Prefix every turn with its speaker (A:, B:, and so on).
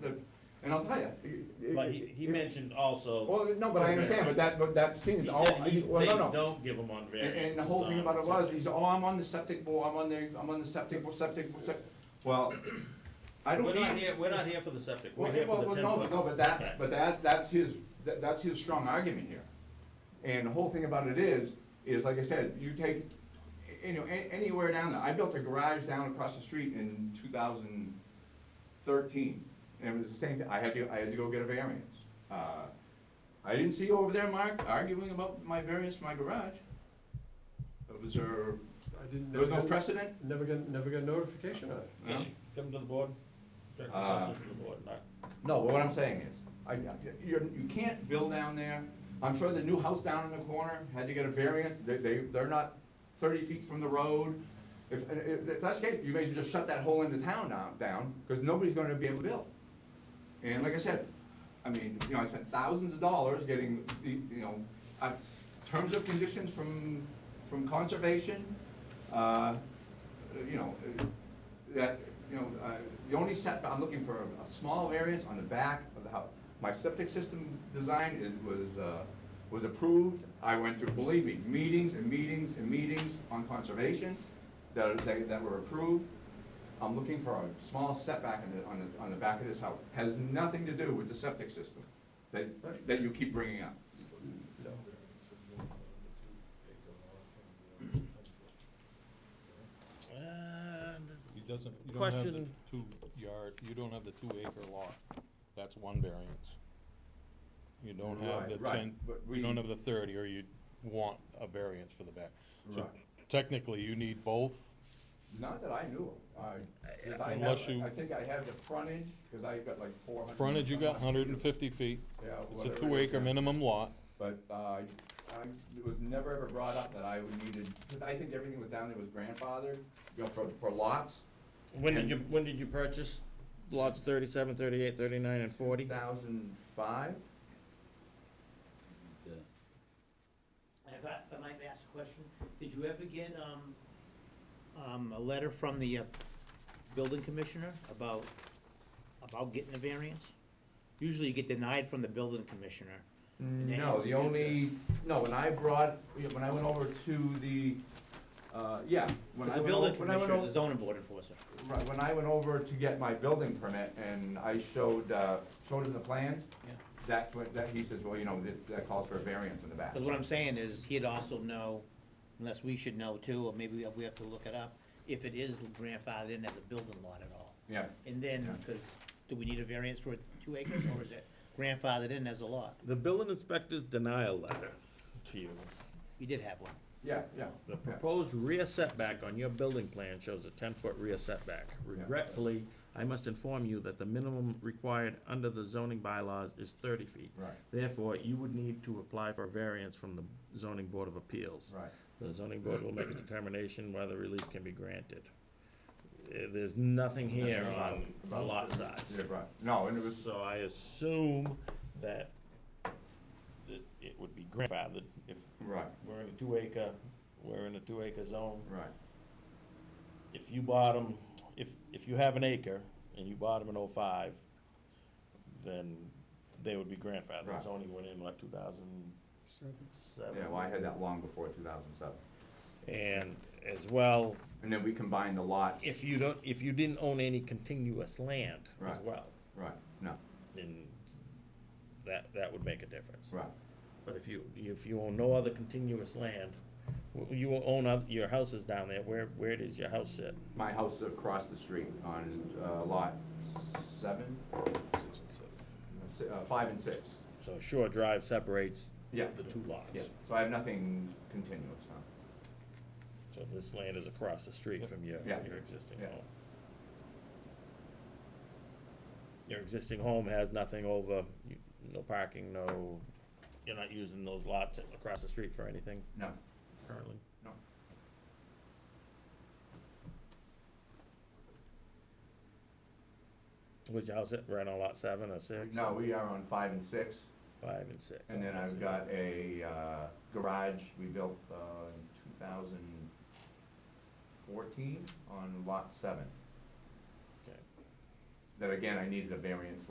A: the, and I'll tell you. it-
B: But he,
A: it-
B: he
A: it-
B: mentioned also,
A: Well, no, but I understand, but that, but that
B: he
A: seems, all,
B: said he,
A: well,
B: they
A: no, no.
B: don't give them on
A: And,
B: variance.
A: and the whole thing about it was, he's, oh, I'm on the septic board, I'm on the, I'm on the septic, board, septic, board, septic. Well, I don't
B: We're
A: need.
B: not here, we're not here for the septic, we're
A: Well,
B: here
A: well,
B: for the
A: well,
B: ten
A: no,
B: foot.
A: No, but that, but that, that's his, that- that's his strong argument here. And the whole thing about it is, is like I said, you take, you know, a- anywhere down there, I built a garage down across the street in two thousand thirteen, and it was the same, thing. I had to, I had to go get a variance. Uh, I didn't see you over there, Mark, arguing about my variance for my garage. Was there,
C: I didn't.
A: there was no
C: never got-
A: precedent?
C: Never got, never got notification on it.
A: No?
B: Can you Come to the board, direct the
A: Uh,
B: questions to the board, Mark.
A: No, but what I'm saying is, I, you're, you can't build down there. I'm sure the new house down in the corner had to get a variance, they, they, they're not thirty feet from the road. If, if, if that's the case, you may as well just shut that whole end of town down, down, because nobody's gonna be able to build. And like I said, I mean, you know, I spent thousands of dollars getting, the you know, uh, terms of conditions from, from conservation, uh, you know, that, you know, uh, the only setback, I'm looking for a small variance on the back of the house. My septic system design is, was, uh, was approved. I went through, believe me, meetings and meetings and meetings on conservation that, are- that that were approved. I'm looking for a small setback on the, on the, on the back of this house. Has nothing to do with the septic system that, that you keep bringing up.
B: And
D: He doesn't, you don't have the
B: Question.
D: two yard, you don't have the two acre lot. That's one variance. You don't have the
A: Right, right,
D: ten,
A: but we-
D: you don't have the thirty, or you want a variance for the back. So
A: Right.
D: technically, you need both.
A: Not that I knew of. I, if I
D: Unless
A: have,
D: you-
A: I think I have the frontage, because I've got like four hundred.
D: Frontage, you got hundred and fifty feet.
A: Yeah,
D: It's
A: whatever
D: a
A: it
D: two
A: is,
D: acre
A: yeah.
D: minimum lot.
A: But uh, I, it was never ever brought up that I would needed, because I think everything was down there was grandfathered, you know, for, for lots,
B: when did you, when did you purchase lots thirty-seven, thirty-eight, thirty-nine, and forty?
A: thousand five?
E: If I, if I might ask a question, did you ever get, um, um, a letter from the uh, building commissioner about, about getting a variance? Usually you get denied from the building commissioner.
A: No, the only, no, when I brought, yeah, when I went over to the, uh, yeah. when
E: Because
A: I went o-
E: the building
A: when I went
E: commissioner is the
A: o-
E: zoning board enforcer.
A: Right, when I went over to get my building permit and I showed, uh, showed him the plans,
E: Yeah.
A: that, that, he says, well, you know, that- that calls for a variance in the back.
E: Because what I'm saying is, he'd also know, unless we should know too, or maybe we have- we have to look it up, if it is grandfathered in as a building lot at all.
A: Yeah,
E: And then, because, do we need a variance for two acres, or is it grandfathered in as a lot?
B: The building inspector's denial letter to you.
E: We did have one.
A: yeah, yeah.
B: The
A: yeah.
B: proposed rear setback on your building plan shows a ten-foot rear setback. Regretfully, I must inform you that the minimum required under the zoning bylaws is thirty feet.
A: Right.
B: Therefore, you would need to apply for a variance from the zoning board of appeals.
A: Right.
B: The zoning board will make a determination whether relief can be granted. Eh, There's nothing here on the lot
A: Yeah,
B: size.
A: right. No, and it was,
B: So I assume that it- it would be grandfathered if
A: right,
B: we're in a two acre, we're in a two acre zone.
A: right.
B: If you bought them, if, if you have an acre and you bought them in oh-five, then they would be grandfathered.
A: Right.
B: It's only went in like two thousand seven.
A: Yeah, well, I had that long before two thousand seven.
B: And as well,
A: And then we combined the lot,
B: if you don't, if you didn't own any continuous land as
A: Right.
B: well,
A: right, no,
B: then that, that would make a difference.
A: right,
B: But if you, if you own no other continuous land, w- you own oth- your houses down there, where, where does your house sit?
A: my house across the street on, uh, lot seven, si- uh, five and six.
B: So Shore Drive separates
A: Yeah.
B: the two
A: Yeah,
B: lots.
A: so I have nothing continuous, huh?
B: So this land is across the street from your,
A: Yeah.
B: your existing
A: Yeah.
B: home. Your existing home has nothing over, you- no parking, no, you're not using those lots across the street for anything
A: No,
B: currently?
A: no.
B: Was your house at, right on lot seven or six?
A: No, we are on five and six,
B: Five and six.
A: and then I've got a, uh, garage we built, uh, in two thousand fourteen on lot seven.
B: Okay.
A: That again, I needed a variance